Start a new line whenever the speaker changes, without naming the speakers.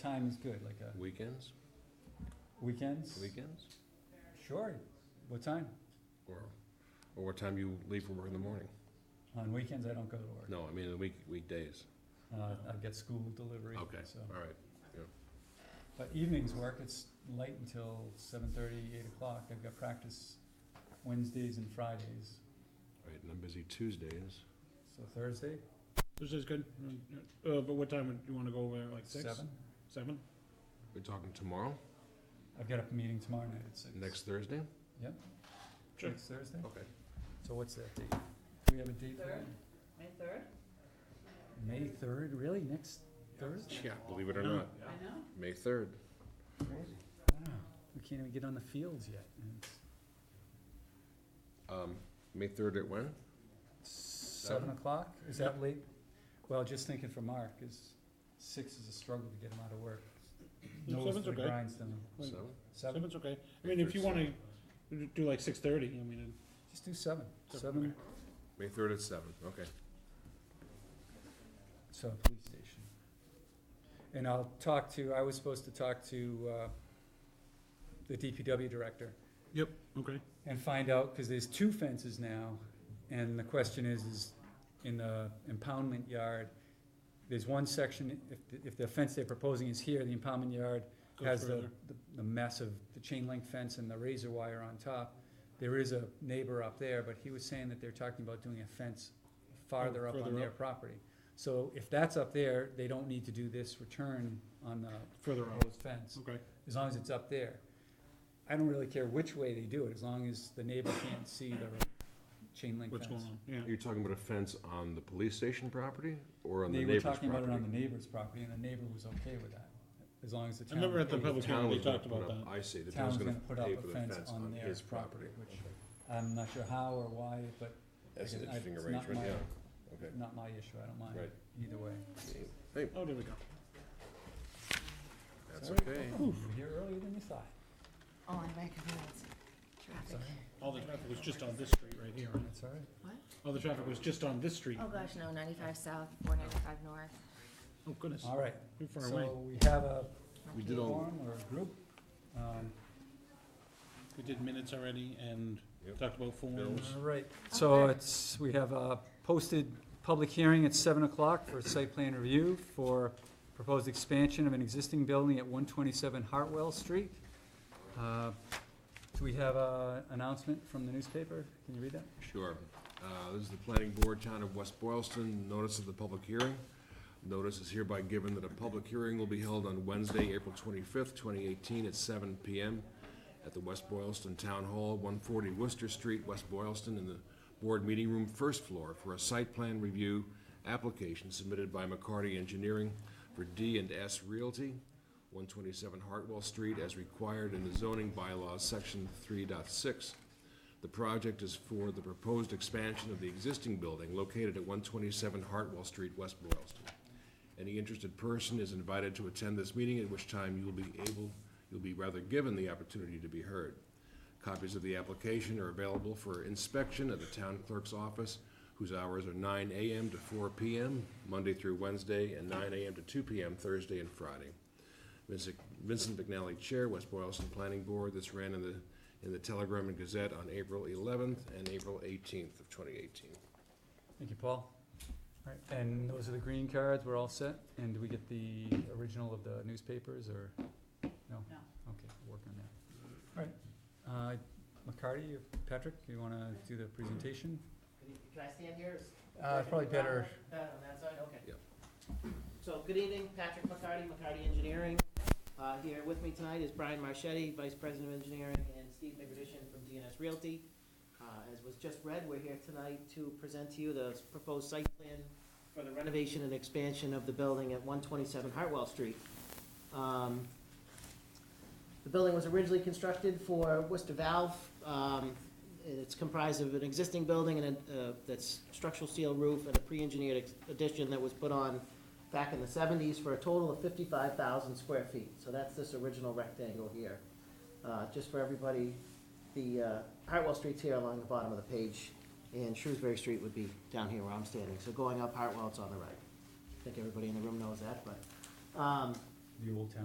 time is good, like uh,
Weekends,
weekends?
weekends,
Sure. What time?
or, or what time you leave for work in the morning?
On weekends, I don't go to work.
No, I mean, the week, weekdays.
Uh, I get school delivery,
Okay,
so.
all right.
But evenings work, it's late until seven thirty, eight o'clock. I've got practice Wednesdays and Fridays.
All right, and I'm busy Tuesdays.
So Thursday,
This is good, uh, but what time would you wanna go over there, like six?
seven.
Seven?
We're talking tomorrow,
I've got a meeting tomorrow night at six.
next Oh. Thursday?
Sure.
Next Thursday?
Okay.
So what's that date? Do we have a date for that?
Third. May third?
May third, really? Next Thursday?
Yeah, believe it or
No.
not,
I know.
May third.
Crazy. Wow. We can't even get on the fields yet. and it's
Um, May third at when?
Seven o'clock? Is that late? Well, just thinking for Mark, is six is a struggle to get him out of work.
No,
Nose
seven's
to the
okay.
grindstone.
Like,
Seven?
Seven?
Seven's okay, I mean, if you wanna do like six thirty, I mean,
Just do seven.
Seven,
Seven,
okay.
May third at seven, okay.
so police station. And I'll talk to, I was supposed to talk to, uh, the DPW director
okay.
and find out, cause there's two fences now. And the question is, is in the impoundment yard, there's one section, if, the- if the fence they're proposing is here, the impoundment yard
Go
has the,
further.
the- the mess of the chain link fence and the razor wire on top. There is a neighbor up there, but he was saying that they're talking about doing a fence farther up on
Oh, further
their
up.
property. So if that's up there, they don't need to do this return on the
Further out,
proposed fence,
okay,
as long as it's up there. I don't really care which way they do it, as long as the neighbor can't see the chain link
what's going
fence.
on, yeah.
You're talking about a fence on the police station property or on the
They were
neighbor's
talking about it on
property?
the neighbor's property, and the neighbor was okay with that, as long as the
I
town.
remember at the
paid.
public
Town
hearing, they
was gonna
talked
put
about
up-
that,
I see, the town's
town's
gonna
gonna put up
pay
a
for the
fence on their
his
property, which I'm not sure how or why, but
That's an
Again, I-
interesting
it's not
arrangement,
my-
yeah, okay.
not my issue, I don't mind
Right.
either way.
Hey,
oh, there we go.
that's
Sorry.
okay.
You're here earlier than you thought.
Oh, I recognize traffic.
Sorry.
All the traffic was just on this street right here, right?
That's all right.
all the traffic was just on this street,
Oh, gosh, no, ninety-five south, four ninety-five north.
oh goodness,
All right,
too far away.
so we have a
We did all,
forum or a group. Um,
We did minutes already and
Yep.
talked about forms,
Bills.
All right, so
Okay.
it's, we have a posted public hearing at seven o'clock for site plan review for proposed expansion of an existing building at one twenty-seven Hartwell Street. Uh, Do we have a announcement from the newspaper? Can you read that?
Sure. Uh, This is the planning board, town of West Boylston, notice of the public hearing. Notice is hereby given that a public hearing will be held on Wednesday, April twenty-fifth, twenty eighteen, at seven PM at the West Boylston Town Hall, one forty Worcester Street, West Boylston, in the board meeting room, first floor, for a site plan review application submitted by McCarty Engineering for D and S Realty, one twenty-seven Hartwell Street, as required in the zoning bylaws, section 3.6. The project is for the proposed expansion of the existing building located at 127 Hartwell Street, West Boylston. Any interested person is invited to attend this meeting, at which time you will be able, you'll be rather given the opportunity to be heard. Copies of the application are available for inspection at the town clerk's office, whose hours are 9 AM to 4 PM, Monday through Wednesday, and 9 AM to 2 PM, Thursday and Friday. Vincent Vincent McNally Chair, West Boylston Planning Board. This ran in the, in the Telegram and Gazette on April 11th and April 18th of 2018.
Thank you, Paul. All right, and those are the green cards, we're all set? And do we get the original of the newspapers, or, no?
No.
Okay, we'll work on that. All right, uh, McCarty, or Patrick, you wanna do the presentation?
Good evening. Can I stand here? Is-
Uh, it's probably better,
Uh, on that side, okay.
Yep.
So, good evening, Patrick McCarty, McCarty Engineering. Uh, here with me tonight is Brian Marchetti, Vice President of Engineering, and Steve McRadishin from DNS Realty. Uh, as was just read, we're here tonight to present to you the proposed site plan for the renovation and expansion of the building at one twenty-seven Hartwell Street. Um, the building was originally constructed for Worcester Valve, um, it's comprised of an existing building and a, uh, that's structural steel roof and a pre-engineered ex- addition that was put on back in the seventies for a total of fifty-five thousand square feet. So that's this original rectangle here. Uh, just for everybody, the, uh, Hartwell Street's here along the bottom of the page, and Shrewsbury Street would be down here where I'm standing. So going up Hartwell, it's on the right. I think everybody in the room knows that, but, um,
the old town